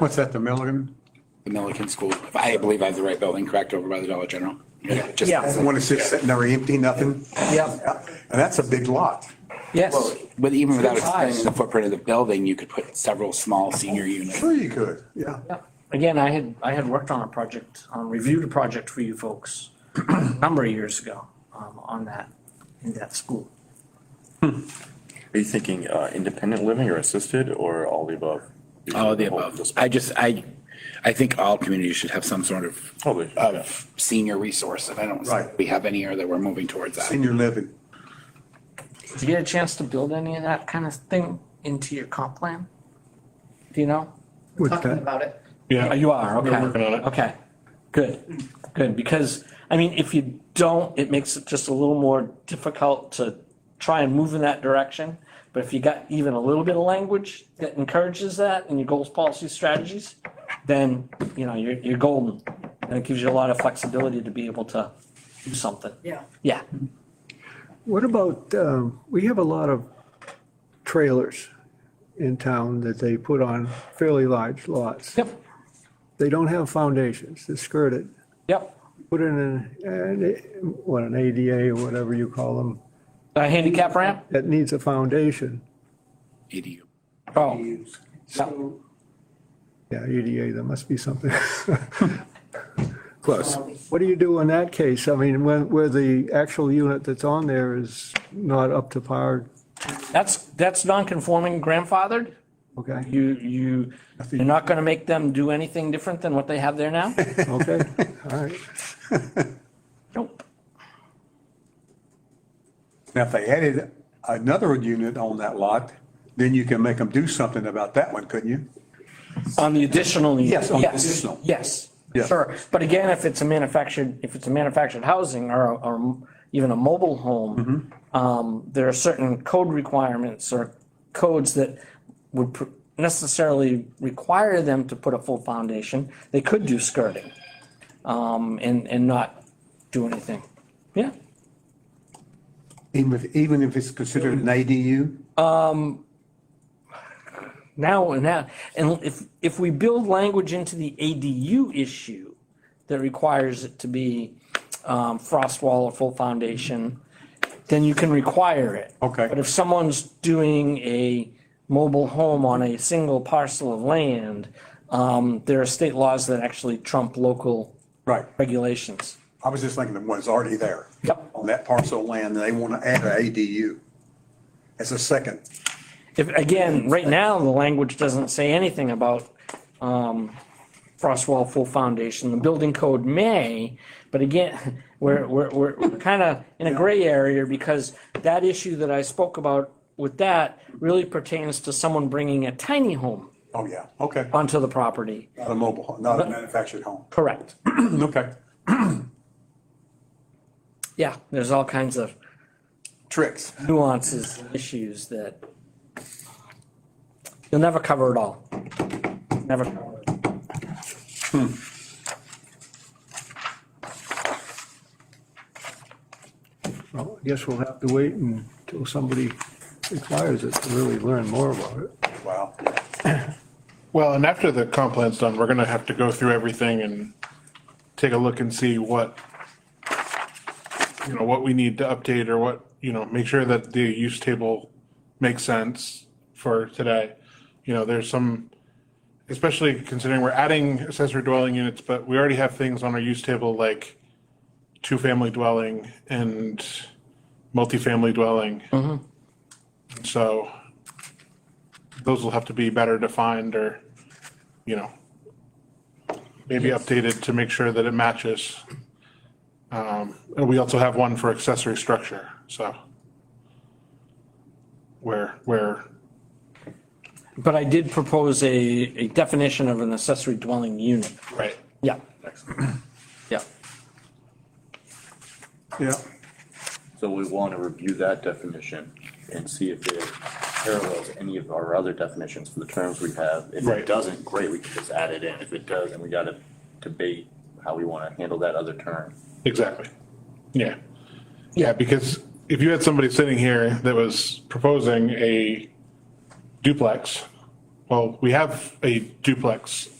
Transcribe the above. What's that, the Milligan? the Milliken School. I believe I have the right building, correct, over by the Dollar General. Yeah. just- Yeah. One that's just sitting there empty, nothing? Yep, And that's a big lot. yes. Well, But even without It's high. expanding the footprint of the building, you could put several small senior units. Sure you could, yeah. Yeah. Again, I had, I had worked on a project, um, reviewed a project for you folks a number of years ago, um, on that, in that school. Are you thinking uh, independent living or assisted or all the above? All of the above. I just, I, I think all communities should have some sort of, Totally, yeah. of senior resource. And I don't, think Right. we have any or that we're moving towards that. Senior living. Did you get a chance to build any of that kind of thing into your comp plan? Do you know? What's Talking that? about it. Yeah. Oh, You are, okay. We're working on it. Okay, good, good, because, I mean, if you don't, it makes it just a little more difficult to try and move in that direction. But if you got even a little bit of language that encourages that in your goals, policies, strategies, then, you know, you're, you're golden. And it gives you a lot of flexibility to be able to do something. Yeah. Yeah, What about, um, we have a lot of trailers in town that they put on fairly large lots. yep, They don't have foundations, they're skirted. yep. Put in an, an- what, an ADA or whatever you call them, A handicap ramp? that needs a foundation. EDU. Oh, yep. Yeah, ADA, there must be something. Close. What do you do in that case? I mean, where, where the actual unit that's on there is not up to par, That's, that's non-conforming grandfathered. okay, You, you, you're not gonna make them do anything different than what they have there now? okay, all right. Nope. Now, if they added another unit on that lot, then you can make them do something about that one, couldn't you? On the additional. unit. Yes, on the additional. Yes, Yeah. sure. But again, if it's a manufactured, if it's a manufactured housing or, or even a mobile home, Mm-hmm. um, there are certain code requirements or codes that would pr- necessarily require them to put a full foundation. They could do skirting, um, and, and not do anything. Yeah. Even if, even if it's considered an ADU? Now, now, and if, if we build language into the ADU issue that requires it to be um, frost wall or full foundation, then you can require it. Okay. But if someone's doing a mobile home on a single parcel of land, um, there are state laws that actually trump local Right. regulations. I was just thinking the one's already there. Yep. On that parcel of land, and they want to add an ADU as a second. If, again, right now, the language doesn't say anything about um, frost wall full foundation. The building code may, but again, we're, we're, we're kind of in a gray area because that issue that I spoke about with that really pertains to someone bringing a tiny home Oh, yeah, okay. onto the property. Not a mobile, home, not a manufactured home. Correct. Okay. Yeah, there's all kinds of Tricks. nuances, issues that you'll never cover it all. Never cover it. Well, I guess we'll have to wait until somebody requires it to really learn more about it. Wow. Well, and after the comp plan's done, we're gonna have to go through everything and take a look and see what, you know, what we need to update or what, you know, make sure that the use table makes sense for today. You know, there's some, especially considering we're adding accessory dwelling units, but we already have things on our use table like two-family dwelling and multifamily dwelling. So those will have to be better defined or, you know, maybe updated to make sure that it matches. Um, And we also have one for accessory structure, so. Where, where, But I did propose a, a definition of an accessory dwelling unit. right. Yeah. Yeah. Yeah. So we want to review that definition and see if it parallels any of our other definitions for the terms we have. If Right. it doesn't, great, we can just add it in. If it does, then we got to debate how we want to handle that other term. Exactly. Yeah. Yeah, because if you had somebody sitting here that was proposing a duplex well, we have a duplex